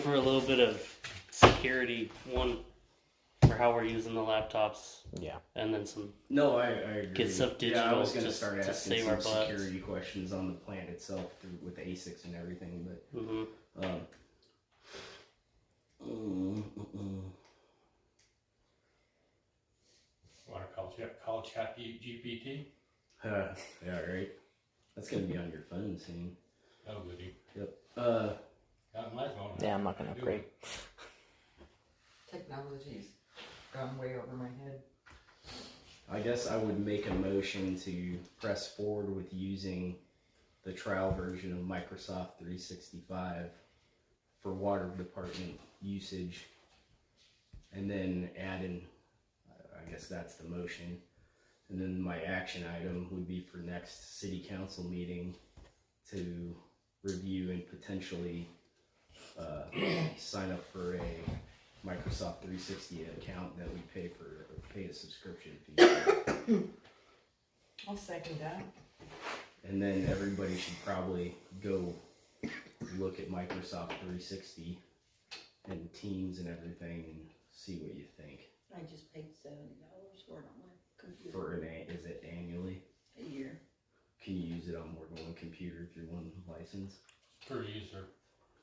for a little bit of security, one for how we're using the laptops, Yeah. and then some. No, I, I agree. Get some Yeah, I digital was gonna just start to asking save some our butts. security questions on the plan itself through, with the ASICs and everything, but hmm um, mm, mm, mm. Want to call chat? Call chat G- GPT? Huh, mm. yeah, right. That's gonna be on your phone soon. Oh, goody. Uh, Got my phone. Yeah, I'm not gonna upgrade. Technology's gone way over my head. I guess I would make a motion to press forward with using the trial version of Microsoft 365 for water department usage, and then add in. I guess that's the motion, and then my action item would be for next city council meeting to review and potentially uh, sign up for a Microsoft 360 account that we pay for pay a subscription fee. for. I'll second that. and then everybody should probably go look at Microsoft 360 and Teams and everything and see what you think I just paid seventy dollars for it on my computer for an a- is it annually? a year. Can you use it on more than one computer through one license Per user.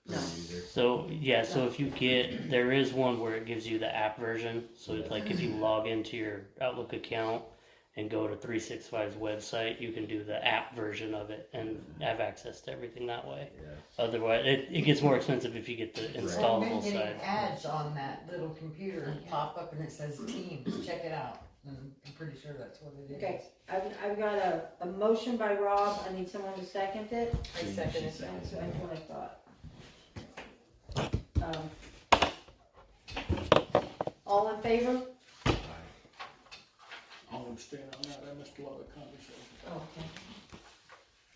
per No. user? So yeah, so if you get there is one where it gives you the app version. So it's like if you log into your Outlook account and go to 365's website, you can do the app version of it and have access to everything that way. Yeah. Otherwise, it, it gets more expensive if you get the I've been installable getting side. ads on that little computer pop up and it says Teams, check it out. And I'm pretty sure that's what it is. Okay. I've, I've got a, a motion by Rob, I need someone to second it, I second She it. seconded that's it. what I thought. Um, All in favor? I'll abstain on that, I missed a lot of conversation. Okay.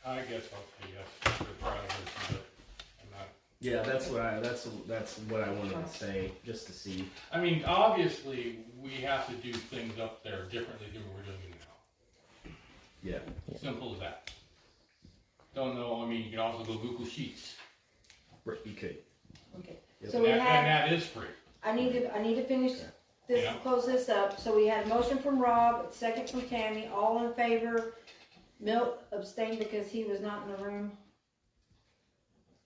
I guess I'll say yes for the trial version, but I'm not. Yeah, that's what I that's that's what I wanted to say just to see. I mean, obviously, we have to do things up there differently than we're doing it now. Yeah. Simple as that. Don't know, I mean, you can also go Google Sheets. Right, You could. Okay, Yep. so And we that, and have, that is free. I need to, I need to finish this, Yeah. close this up, so we had a motion from Rob, a second from Tammy, all in favor? Milt abstained because he was not in the room,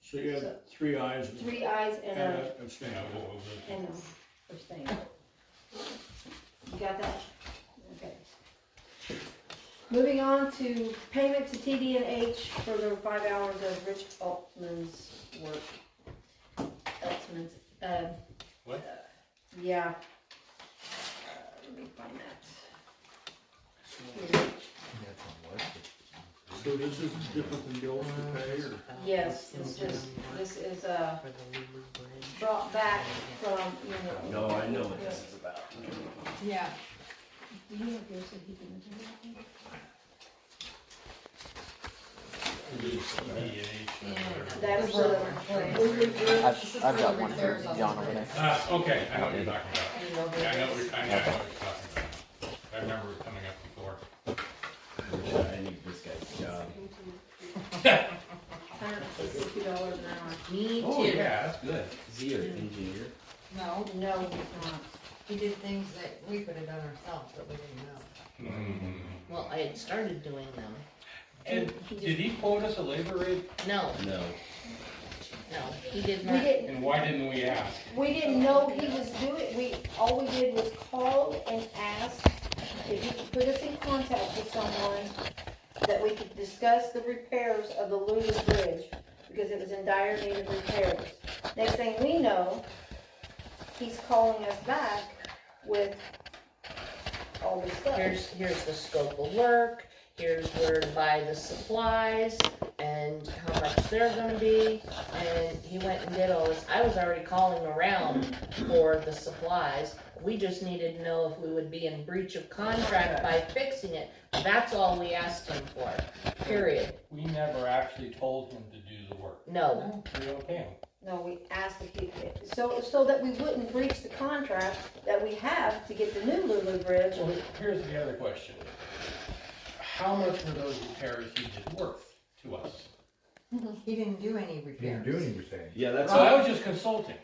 So you had three eyes and three ayes and a. a You abstain. know, what was it? And abstain. You got that? Okay. Moving on to payment to TD and H for the five hours of Rich Altman's work. Altman's, uh. What? Yeah. Uh, Let me find that. So this is different than bills to pay, or? Yes, this is, this is, uh, brought back from, you know. No, I know what this is about. Yeah. Do you have yours that he didn't do that? That's This is the, for- we withdrew- This I've, is I've for got the one for reserves on John the over there. Ah, okay, I know what you're talking about. You know, Yeah, I know, what- I know what you're talking about. I remember it coming up before. Which I need this guy's job. Hundred and sixty dollars an hour. Me Oh, too. yeah, that's good. Is he an engineer? No, No, he's not. he did things that we could have done ourselves, but we didn't know. Mm-hmm. Well, I had started doing them. And did he quote us a labor rate? No, No. no, he did We not. didn't, And why didn't we ask? we didn't know he was doing, we, all we did was call and ask if he could put us in contact with someone that we could discuss the repairs of the Luna Bridge, because it was in dire need of repairs. Next thing we know, he's calling us back with all this stuff. Here's, here's the scope of work, here's where to buy the supplies, and how much they're gonna be. And he went and did all this. I was already calling around for the supplies. We just needed to know if we would be in breach of contract by fixing it. That's all we asked him for, period. We never actually told him to do the work. No, We don't pay him. No, we asked if he, so, so that we wouldn't breach the contract that we have to get the new Lulu Bridge. Well, here's the other question. How much were those repairs he did worth to us? He didn't do any Didn't repairs. do anything. Yeah, that's Oh, So I was just consulting.